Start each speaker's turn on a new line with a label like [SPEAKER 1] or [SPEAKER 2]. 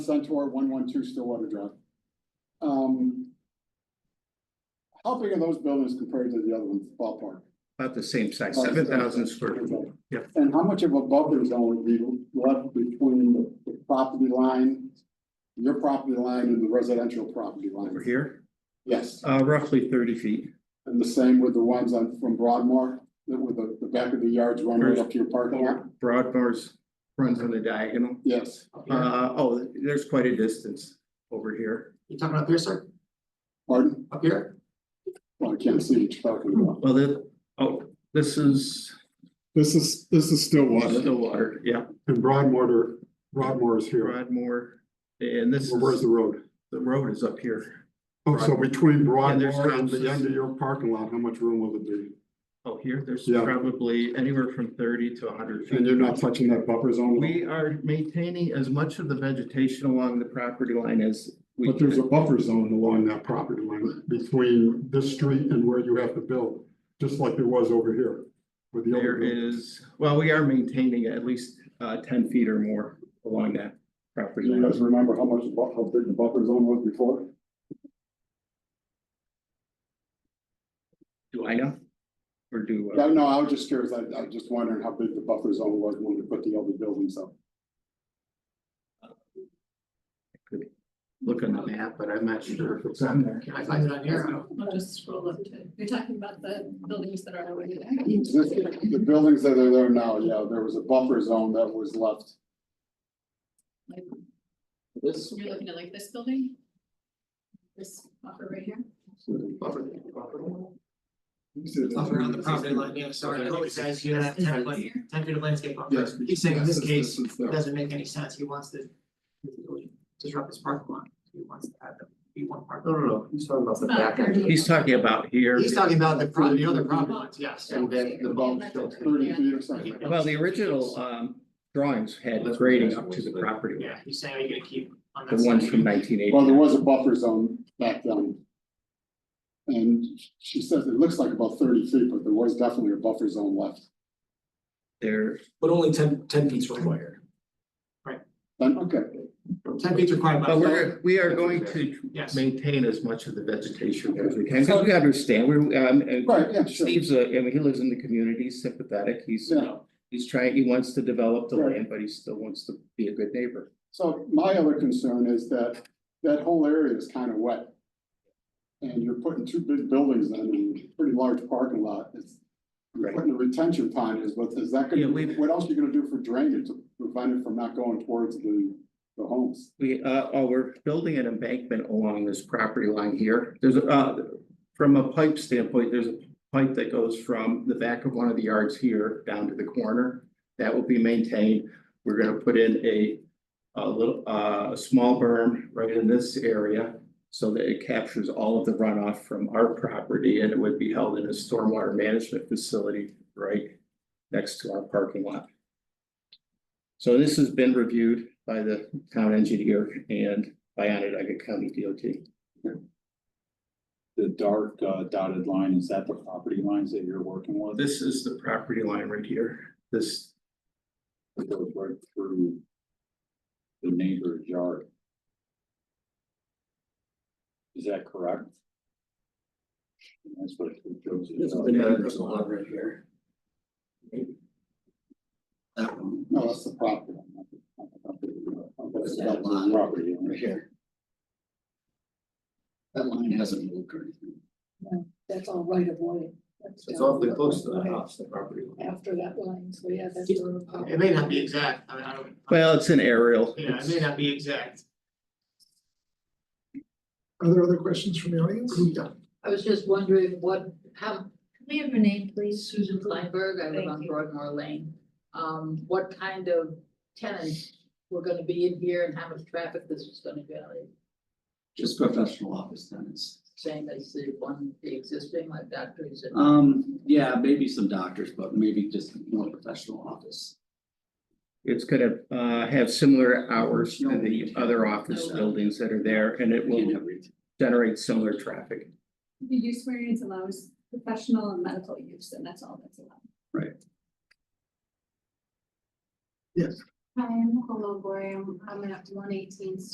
[SPEAKER 1] Centaur, one one two Stillwater Drive. Um. How big are those buildings compared to the other ones, ballpark?
[SPEAKER 2] About the same size, seven thousand square foot. Yep.
[SPEAKER 1] And how much of a buffer zone would be left between the- the property line, your property line and the residential property
[SPEAKER 2] over
[SPEAKER 1] line?
[SPEAKER 2] here,
[SPEAKER 1] Yes,
[SPEAKER 2] uh, roughly thirty feet.
[SPEAKER 1] and the same with the ones on from Broadmoor, that with the, the back of the yards run right up to your parking lot?
[SPEAKER 2] Broadmoor's runs on the diagonal.
[SPEAKER 1] Yes,
[SPEAKER 2] Uh, oh, there's quite a distance over here.
[SPEAKER 3] You talking up here, sir?
[SPEAKER 1] pardon?
[SPEAKER 3] Up here?
[SPEAKER 1] Well, I can't see each parking lot.
[SPEAKER 2] Well, the, oh, this is
[SPEAKER 4] This is, this is Stillwater.
[SPEAKER 2] Stillwater, yeah,
[SPEAKER 4] And Broadmoor, Broadmoor is here.
[SPEAKER 2] Broadmoor. And this
[SPEAKER 4] Well, Where's
[SPEAKER 2] is,
[SPEAKER 4] the road?
[SPEAKER 2] the road is up here.
[SPEAKER 4] Oh, so between
[SPEAKER 2] Yeah, there's
[SPEAKER 4] Broadmoor and
[SPEAKER 2] houses.
[SPEAKER 4] the end of your parking lot, how much room will it be?
[SPEAKER 2] Oh, here, there's
[SPEAKER 4] Yeah.
[SPEAKER 2] probably anywhere from thirty to hundred
[SPEAKER 4] And you're
[SPEAKER 2] feet.
[SPEAKER 4] not touching that buffer zone? at all?
[SPEAKER 2] We are maintaining as much of the vegetation along the property line as we.
[SPEAKER 4] But there's a
[SPEAKER 2] can.
[SPEAKER 4] buffer zone along that property line between this street and where you have to build, just like there was over here. With the other,
[SPEAKER 2] There
[SPEAKER 4] building.
[SPEAKER 2] is, well, we are maintaining at least uh ten feet or more along that property.
[SPEAKER 1] Do you guys
[SPEAKER 2] line.
[SPEAKER 1] remember how much, the bu- how big the buffer zone was before?
[SPEAKER 2] Do I know? Or do, uh,
[SPEAKER 1] Yeah, no, I was just curious. I, I was just wondering how big the buffer zone was when we put the other buildings up.
[SPEAKER 2] look on the map?
[SPEAKER 3] Yeah, but I'm not sure if
[SPEAKER 2] It's on there.
[SPEAKER 3] Can I find it on here?
[SPEAKER 5] I'll just scroll up to, you're talking about the buildings that are already
[SPEAKER 1] The
[SPEAKER 5] there.
[SPEAKER 1] the buildings that are there now, yeah, there was a buffer zone that was left.
[SPEAKER 5] Like,
[SPEAKER 2] This,
[SPEAKER 5] You're looking at like this building? This buffer right here?
[SPEAKER 3] Buffer, buffer on the property line, yeah, sorry, I know it says you have ten foot, ten feet of landscape buffer.
[SPEAKER 1] Yes.
[SPEAKER 3] He's saying in this
[SPEAKER 1] is
[SPEAKER 3] case, it
[SPEAKER 1] there.
[SPEAKER 3] doesn't make any sense, he wants to disrupt his parking lot, he wants to add the, he want parking.
[SPEAKER 6] No, no, no, he's talking about the
[SPEAKER 5] About
[SPEAKER 6] back end.
[SPEAKER 5] 30.
[SPEAKER 2] he's talking about here.
[SPEAKER 3] He's talking about the pro, the other property lines, yes,
[SPEAKER 6] And then the bump still.
[SPEAKER 1] Thirty feet or something.
[SPEAKER 2] Well, the original um drawings had grading up to the property, line,
[SPEAKER 3] yeah, he's saying, are you gonna keep on that
[SPEAKER 2] the ones from
[SPEAKER 3] side?
[SPEAKER 2] nineteen
[SPEAKER 1] Well, there
[SPEAKER 2] eighty.
[SPEAKER 1] was a buffer zone back then. And she says it looks like about thirty feet, but there was definitely a buffer zone left.
[SPEAKER 2] There,
[SPEAKER 6] But only ten, ten feet's required.
[SPEAKER 1] Then, okay,
[SPEAKER 3] Ten feet required by
[SPEAKER 2] but
[SPEAKER 3] law,
[SPEAKER 2] we're, we are going to
[SPEAKER 3] yes.
[SPEAKER 2] maintain as much of the vegetation as we can, because we understand, we're, um, uh,
[SPEAKER 1] right, yeah, sure.
[SPEAKER 2] Steve's a, I mean, he lives in the community, he's sympathetic, he's, you know, he's trying, he wants to develop the
[SPEAKER 1] Right.
[SPEAKER 2] land, but he still wants to be a good neighbor.
[SPEAKER 1] So my other concern is that that whole area is kind of wet. And you're putting two big buildings in and a pretty large parking lot. It's you're
[SPEAKER 2] Right.
[SPEAKER 1] putting a retention pond is, but is that
[SPEAKER 2] Yeah,
[SPEAKER 1] gonna,
[SPEAKER 2] we-
[SPEAKER 1] what else are you gonna do for drainage to prevent it from not going towards the the homes?
[SPEAKER 2] We, uh, oh, we're building an embankment along this property line here, there's, a- uh, from a pipe standpoint, there's a pipe that goes from the back of one of the yards here down to the corner. That will be maintained, we're gonna put in a, a little, uh, a small berm right in this area. So that it captures all of the runoff from our property and it would be held in a stormwater management facility right next to our parking lot. So this has been reviewed by the town engineer and by Onondaga County DOT.
[SPEAKER 7] the dark uh, dotted line, is that the property lines that you're working with?
[SPEAKER 2] This is the property line right here, this,
[SPEAKER 7] It goes right through the neighbor's yard. Is that correct? That's what it shows.
[SPEAKER 2] this is the neighbor's lot right here.
[SPEAKER 6] That one.
[SPEAKER 1] No, that's the property. line, not the- not the property line. That's the property line.
[SPEAKER 6] Right here. That line hasn't moved or anything.
[SPEAKER 8] That's all right of way. That's
[SPEAKER 6] It's
[SPEAKER 8] down
[SPEAKER 6] awfully
[SPEAKER 8] the
[SPEAKER 6] close to the
[SPEAKER 8] right
[SPEAKER 6] house, the property line.
[SPEAKER 8] After that line, so yeah, that's. the road.
[SPEAKER 3] It may not be exact, I mean, I don't.
[SPEAKER 2] Well, it's an aerial.
[SPEAKER 3] Yeah, it may not be exact.
[SPEAKER 6] Are there other questions from the audience?
[SPEAKER 8] I was just wondering what, how, can we have your name, please? Susan Kleinberg, I live
[SPEAKER 5] Thank
[SPEAKER 8] on
[SPEAKER 5] you.
[SPEAKER 8] Broadmoor Lane. Um, what kind of tenants were gonna be in here and how much traffic this was gonna generate?
[SPEAKER 6] Just professional office tenants.
[SPEAKER 8] Same as the one, the existing, like doctors and.
[SPEAKER 6] Um, yeah, maybe some doctors, but maybe just more professional office.
[SPEAKER 2] It's gonna uh have similar hours to the other office
[SPEAKER 8] No.
[SPEAKER 2] buildings that are there, and it
[SPEAKER 6] Can't
[SPEAKER 2] will
[SPEAKER 6] have retail.
[SPEAKER 2] generate similar traffic.
[SPEAKER 5] The use variance allows professional and medical use, and that's all that's allowed.
[SPEAKER 6] Right.
[SPEAKER 5] Yes. Hi, I'm Nicole Gloria, I'm at one eighteen